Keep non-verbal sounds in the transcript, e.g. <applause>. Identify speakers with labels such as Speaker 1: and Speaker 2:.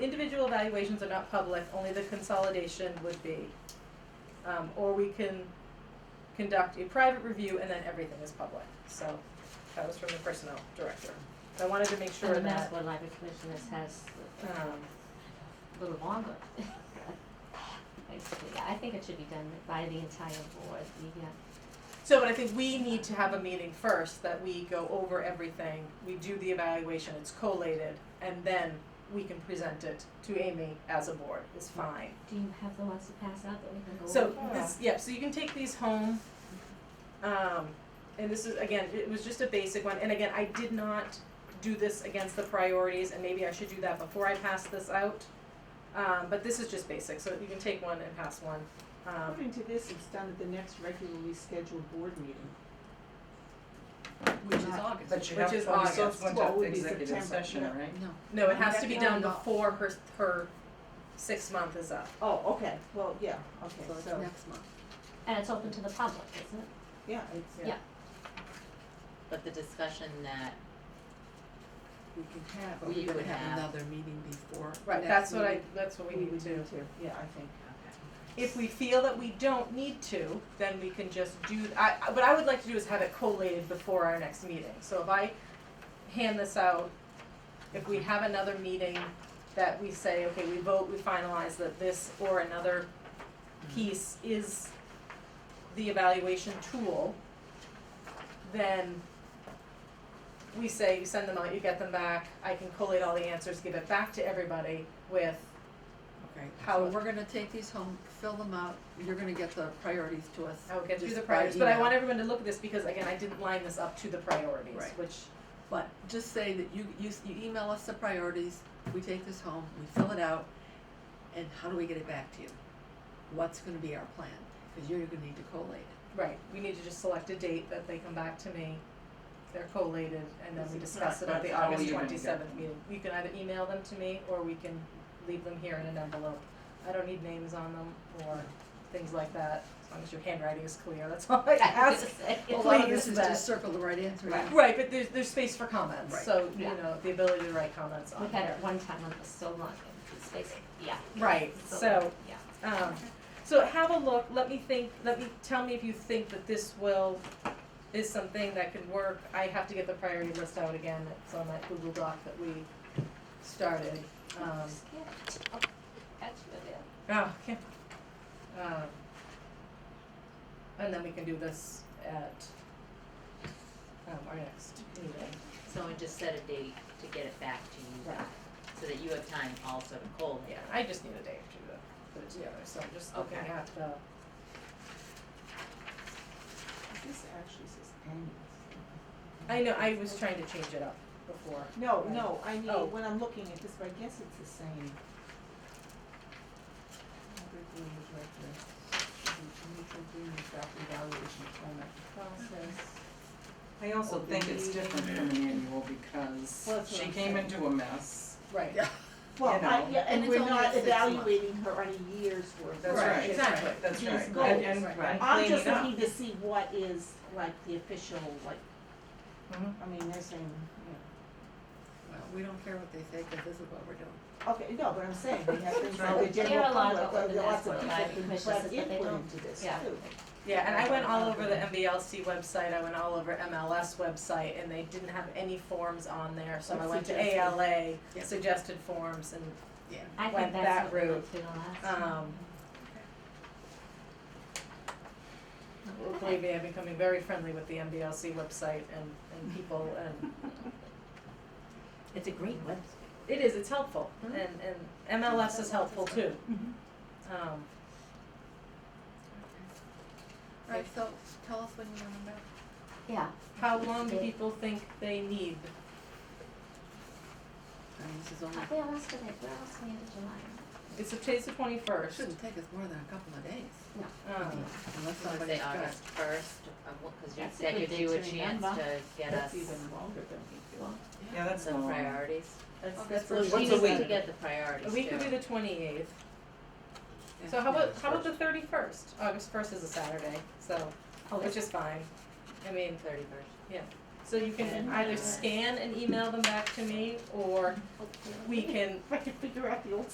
Speaker 1: individual evaluations are not public, only the consolidation would be. Um, or we can conduct a private review and then everything is public, so that was from the personnel director. I wanted to make sure
Speaker 2: And the
Speaker 1: that,
Speaker 2: Massapequa Library Commission is- has
Speaker 1: um,
Speaker 2: a little longer. <laughs> Basically, I think it should be done by the entire board, the, uh,
Speaker 1: so, but I think we need to have a meeting first, that we go over everything, we do the evaluation, it's collated, and then we can present it to Amy as a board, is fine.
Speaker 2: do you have the ones to pass out that we can go over?
Speaker 1: So this, Oh, yeah, so you can take these home. Um, and this is, again, it was just a basic one, and again, I did not do this against the priorities, and maybe I should do that before I pass this out. Um, but this is just basic, so you can take one and pass one. Um,
Speaker 3: According to this, it's done at the next regularly scheduled board meeting. Which is August.
Speaker 4: But you
Speaker 1: Which
Speaker 4: have
Speaker 1: is
Speaker 4: to,
Speaker 1: August.
Speaker 4: so it's going
Speaker 3: Well, it
Speaker 4: to
Speaker 3: would be
Speaker 4: executive
Speaker 3: September,
Speaker 4: session,
Speaker 3: yeah.
Speaker 4: right?
Speaker 1: no, it has to be done
Speaker 3: Yeah.
Speaker 1: before her, her six month is up.
Speaker 3: Oh, okay, well, yeah, okay, so,
Speaker 5: next month.
Speaker 2: And it's open to the public, isn't it?
Speaker 3: yeah, it's,
Speaker 2: Yeah.
Speaker 5: But the discussion that
Speaker 3: we can have,
Speaker 5: we
Speaker 3: we
Speaker 5: would have,
Speaker 6: another meeting before.
Speaker 1: Right, that's what I, that's what we
Speaker 3: we
Speaker 1: need
Speaker 3: would
Speaker 1: to.
Speaker 3: do too, yeah, I think.
Speaker 1: If we feel that we don't need to, then we can just do, I, I- what I would like to do is have it collated before our next meeting. So if I hand this out, if we have another meeting that we say, okay, we vote, we finalize that this or another piece is the evaluation tool, then we say, you send them out, you get them back, I can collate all the answers, give it back to everybody with,
Speaker 6: Okay,
Speaker 1: How-
Speaker 6: so we're gonna take these home, fill them out, you're gonna get the priorities to us.
Speaker 1: I will get through
Speaker 6: just
Speaker 1: the
Speaker 6: by
Speaker 1: priorities, but I
Speaker 6: email.
Speaker 1: want everyone to look at this because again, I didn't line this up to the priorities,
Speaker 6: Right.
Speaker 1: which,
Speaker 6: But just say that you, you, s- you email us the priorities, we take this home, we fill it out, and how do we get it back to you? What's gonna be our plan? Cause you're gonna need to collate it.
Speaker 1: right, we need to just select a date that they come back to me. They're collated and then we discuss it at the
Speaker 4: How are
Speaker 1: August
Speaker 4: you gonna
Speaker 1: twenty
Speaker 4: get
Speaker 1: seventh
Speaker 4: them?
Speaker 1: meeting. You can either email them to me or we can leave them here in an envelope. I don't need names on them or things like that, as long as your handwriting is clear, that's all
Speaker 2: <laughs>
Speaker 1: I ask.
Speaker 6: A lot of
Speaker 1: Please,
Speaker 6: this is
Speaker 1: but-
Speaker 6: just circle the right answer. in.
Speaker 1: Right, but there's there's space for comments,
Speaker 6: Right.
Speaker 1: so you
Speaker 2: Yeah.
Speaker 1: know, the ability to write comments on
Speaker 2: We
Speaker 1: it.
Speaker 2: had it one time, it was so long, it's basically, yeah.
Speaker 1: Right, so
Speaker 2: Yeah.
Speaker 1: Um, so have a look, let me think, let me, tell me if you think that this will, is something that could work. I have to get the priority list out again, it's on that Google Doc that we started, um,
Speaker 2: Yeah. Catch you there.
Speaker 1: oh, okay. Um, and then we can do this at, um, our next meeting.
Speaker 5: so and just set a date to get it back to you
Speaker 1: Right.
Speaker 5: guys, so that you have time also to collate.
Speaker 1: Yeah, I just need a day or two to put it together, so I'm just looking
Speaker 5: Okay.
Speaker 1: at the,
Speaker 3: This actually says annual.
Speaker 1: I know, I was trying to change it up before.
Speaker 3: No,
Speaker 1: Right.
Speaker 3: no, I
Speaker 1: Oh.
Speaker 3: mean, when I'm looking at this, but I guess it's the same. Regularly directed, should be mutual agreement about the evaluation format process.
Speaker 4: I also
Speaker 3: Open
Speaker 4: think it's
Speaker 3: meeting.
Speaker 4: different from an annual
Speaker 3: Well,
Speaker 4: because
Speaker 3: that's what
Speaker 4: she
Speaker 3: I'm
Speaker 4: came
Speaker 3: saying.
Speaker 4: into a mess.
Speaker 1: Right,
Speaker 3: Well,
Speaker 4: You
Speaker 3: I,
Speaker 4: know.
Speaker 3: yeah, and
Speaker 6: And
Speaker 3: we're
Speaker 6: it's only a
Speaker 3: not
Speaker 6: six month.
Speaker 3: evaluating her on a year's worth.
Speaker 4: That's
Speaker 3: We're
Speaker 1: Right,
Speaker 4: right.
Speaker 3: just-
Speaker 1: exactly.
Speaker 4: That's
Speaker 3: Yes,
Speaker 4: right,
Speaker 3: goals,
Speaker 4: and and
Speaker 1: right.
Speaker 4: and
Speaker 3: I'm
Speaker 4: clean
Speaker 3: just
Speaker 4: it up.
Speaker 3: looking to see what is like the official, like,
Speaker 1: Mhm.
Speaker 4: Mm-hmm.
Speaker 3: I mean, they're saying,
Speaker 6: Well, we don't care what they say, cause this is what we're doing.
Speaker 3: yeah. okay, no, but I'm saying, we have things
Speaker 4: Right.
Speaker 3: like the
Speaker 2: There are
Speaker 3: general
Speaker 2: a lot of
Speaker 3: public,
Speaker 2: open
Speaker 3: there are lots
Speaker 2: desks
Speaker 3: of
Speaker 2: that
Speaker 3: people
Speaker 2: provide
Speaker 3: who
Speaker 2: commissions
Speaker 3: provide
Speaker 2: that they
Speaker 3: input
Speaker 2: don't.
Speaker 3: into this too.
Speaker 2: Yeah.
Speaker 1: Yeah, and I went all over the MBLC website, I went all over MLS website, and they didn't have any forms on there, so I went to
Speaker 3: Suggested.
Speaker 1: ALA,
Speaker 6: Yeah.
Speaker 1: suggested forms, and,
Speaker 2: I
Speaker 1: Went
Speaker 2: think
Speaker 1: that
Speaker 2: that's what we
Speaker 1: route.
Speaker 2: went to the last time.
Speaker 1: um. Believe me, I'm becoming very friendly with the MBLC website and, and people, and
Speaker 2: It's a great website.
Speaker 1: it is, it's helpful, and, and MLS is helpful too.
Speaker 2: Mm-hmm.
Speaker 1: Um,
Speaker 6: Right, so tell us when you want them back.
Speaker 2: Yeah.
Speaker 1: how long do people think they need?
Speaker 6: I mean, this is only,
Speaker 2: Uh, Where else did they, where else did they July?
Speaker 1: It's today's the
Speaker 6: it
Speaker 1: twenty-first,
Speaker 6: shouldn't take us more than a couple of days,
Speaker 1: um,
Speaker 6: unless
Speaker 5: So
Speaker 6: somebody's
Speaker 5: say
Speaker 6: got.
Speaker 5: August first, cause you,
Speaker 2: That's a
Speaker 5: that
Speaker 2: good
Speaker 5: gives
Speaker 2: date
Speaker 5: you a
Speaker 2: to
Speaker 5: chance
Speaker 2: remember.
Speaker 5: to get us
Speaker 3: That's even longer than we do.
Speaker 4: Yeah, that's
Speaker 5: some
Speaker 4: long.
Speaker 5: priorities.
Speaker 3: That's,
Speaker 6: August
Speaker 3: that's
Speaker 6: first.
Speaker 3: what
Speaker 5: She
Speaker 3: she
Speaker 4: a
Speaker 5: needs
Speaker 4: week?
Speaker 5: to get the priorities too.
Speaker 1: we could do the twenty-eighth.
Speaker 6: Yeah.
Speaker 1: So how about, how about the thirty-first? August first is a Saturday, so,
Speaker 2: Oh,
Speaker 1: which is fine. I mean,
Speaker 5: Thirty first.
Speaker 1: so you can either scan and email them back to me, or we can
Speaker 2: oh,
Speaker 3: If I can figure out the old